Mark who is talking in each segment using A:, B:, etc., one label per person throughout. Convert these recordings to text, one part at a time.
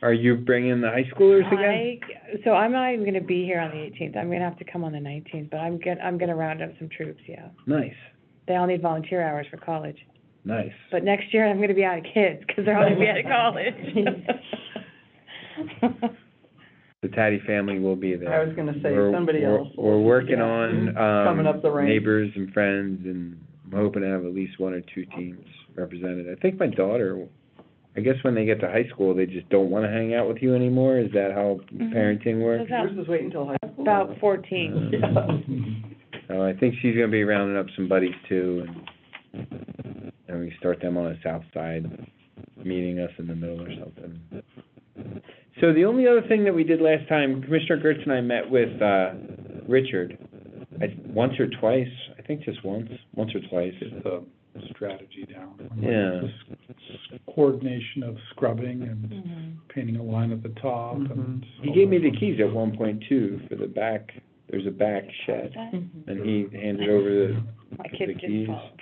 A: Are you bringing the high schoolers again?
B: I, so I'm not even gonna be here on the eighteenth, I'm gonna have to come on the nineteenth, but I'm get, I'm gonna round up some troops, yeah.
A: Nice,
B: They all need volunteer hours for college,
A: nice.
B: but next year I'm gonna be out of kids, 'cause they're all gonna be out of college.
A: The Taddy family will be there.
C: I was gonna say,
A: We're-
C: somebody
A: we're-
C: else
A: We're
C: will-
A: working
C: yeah.
A: on,
C: Coming up the
A: um,
C: ranks.
A: neighbors and friends, and I'm hoping to have at least one or two teams represented. I think my daughter, I guess when they get to high school, they just don't wanna hang out with you anymore, is that how
C: Mm-hmm.
B: Mhm.
A: parenting works? Uh,
B: That's how-
C: Yours was waiting until high school.
B: About fourteen,
C: Yeah.
A: So I think she's gonna be rounding up some buddies too, and, and we start them on the south side, meeting us in the middle or something. So the only other thing that we did last time, Commissioner Gertz and I met with, uh, Richard, I, once or twice, I think just once, once or twice.
D: get the strategy down.
A: Yeah.
D: This Coordination of scrubbing and
A: Mm-hmm.
D: painting a line at the top
C: Mm-hmm.
D: and.
A: He gave me the keys at one point two for the back, there's a back shed, and he handed over the,
B: my
A: The
B: kids
A: keys.
B: did fall. apart.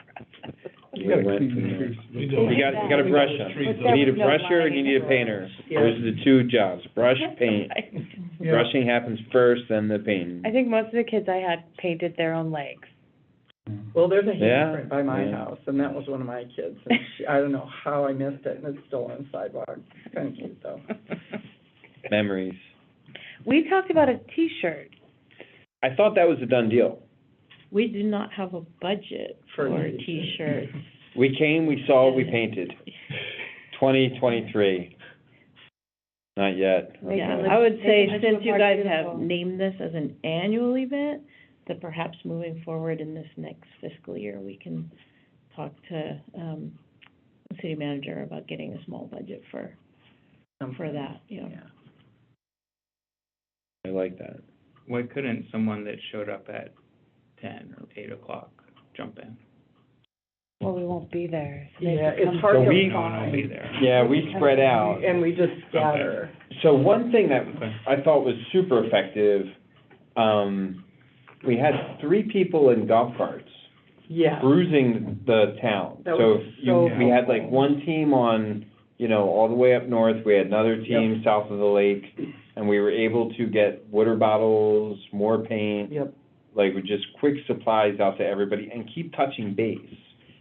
A: we
D: You gotta
A: went
D: clean
A: from
D: the
A: there.
D: trees.
E: You
A: You got, you got a brush on, you need a
B: No
A: brusher and you
B: lining
A: need a
B: for-
A: painter,
C: Yeah.
A: those are the two jobs, brush, paint.
D: Yeah.
A: Brushing happens first, then the painting.
B: I think most of the kids I had painted their own legs.
C: Well, there's a
A: Yeah,
C: handprint by my
A: yeah.
C: house, and that was one of my kids, and she, I don't know how I missed it, and it's still on the sidewalk. It's kinda cute, though.
A: Memories.
B: We talked about a T-shirt.
A: I thought that was a done deal.
F: We do not have a budget
C: For
F: for
C: these.
F: T-shirts.
A: We came, we saw, we painted. Twenty twenty-three. Not yet.
B: Make
F: Yeah,
B: it look-
F: I would say
B: make it
F: since
B: look
F: you
B: more
F: guys
B: beautiful.
F: have named this as an annual event, that perhaps moving forward in this next fiscal year, we can talk to, um, the city manager about getting a small budget for, for that, you know.
C: Yeah.
A: I like that.
G: Why couldn't someone that showed up at ten or eight o'clock jump in?
B: Well, we won't be there. so they
C: Yeah,
B: have to
C: it's
B: come-
C: hard
A: So
C: to
A: we-
G: No one will be
C: find,
G: there.
A: Yeah, we spread out.
C: and we just scatter.
A: So one thing that I thought was super effective, um, we had three people in golf carts
C: Yeah,
A: cruising the town.
C: That
A: So
C: was
A: if
C: so
A: you, we had like
C: helpful.
A: one team on, you know, all the way up north, we had another
C: Yep.
A: team south of the lake, and we were able to get water bottles, more paint,
C: yep,
A: like with just quick supplies out to everybody and keep touching base.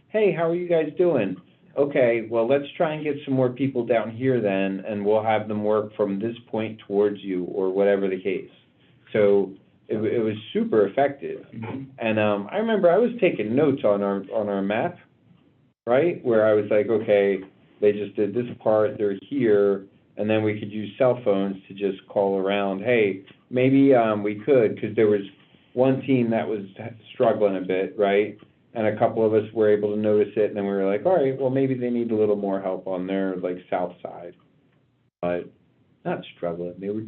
A: Hey, how are you guys doing? Okay, well, let's try and get some more people down here then, and we'll have them work from this point towards you or whatever the case. So it, wa- it was super effective.
D: Mm-hmm.
G: Mhm.
A: And um, I remember I was taking notes on our on our map, right? Where I was like, okay, they just did this part, they're here, and then we could use cell phones to just call around. Hey, maybe um, we could because there was one team that was struggling a bit, right? And a couple of us were able to notice it, and then we were like, all right, well maybe they need a little more help on their like south side, but not struggling. They were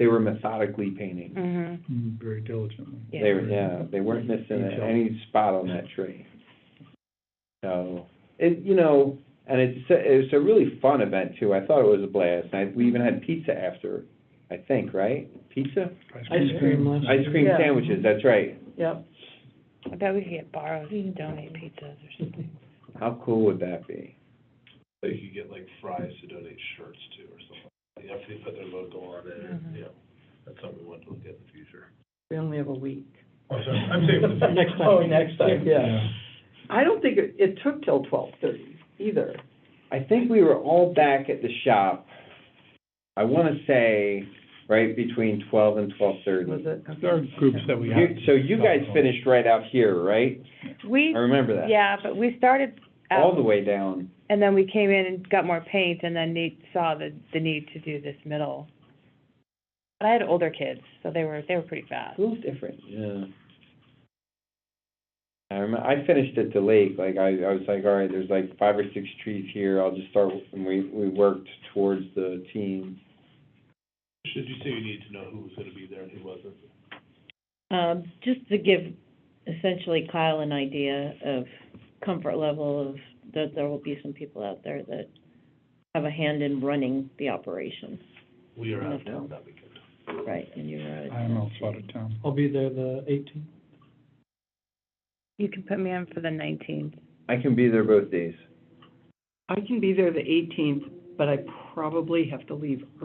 A: they were methodically painting.
B: Mhm.
D: Mm, Very diligently.
B: Yeah.
A: They were, yeah, they weren't missing
D: Detail.
A: any spot on that tree. So, it, you know, and it's, a- it's a really fun event too. I thought it was a blast. And I- we even had pizza after, I think, right? Pizza?
C: Ice cream lunch.
A: Ice cream
C: Yeah.
A: sandwiches, that's right.
C: yep.
B: I bet we could get borrowed, to donate pizzas or something.
A: How cool would that be?
E: They could get like fries to donate shirts to or something. If they put their logo on it, or,
B: Mhm.
E: you know, that's something we want to look at in the future.
C: We only have a week.
D: Oh,
E: I'm saying for the future.
C: Next time. Oh, next time, yeah.
D: Yeah.
C: I don't think, it it took till twelve thirty either.
A: I think we were all back at the shop, I wanna say, right between twelve and
C: Was
A: twelve-thirty.
C: it?
D: There are groups that we have.
A: You, so you guys finished right out here, right?
B: We,
A: I remember that.
B: yeah, but we started
A: All
B: out,
A: the way down.
B: and then we came in and got more paint, and then Nate saw the, the need to do this middle. But I had older kids, so they were, they were pretty fast.
A: A little different, yeah. I remember, I finished at the lake, like, I, I was like, all right, there's like five or six trees here, I'll just start, with- and we, we worked towards the team.
E: Should you say you need to know who was gonna be there and who wasn't?
F: Um, just to give essentially Kyle an idea of comfort level of, that there will be some people out there that have a hand in running the operation,
E: We are out of town that weekend.
F: right? And you're out of
D: I am
F: town,
D: also
F: too.
D: out of town.
C: I'll be there the eighteenth.
B: You can put me in for the nineteenth.
A: I can be there both days.
C: I can be there the eighteenth, but I probably have to leave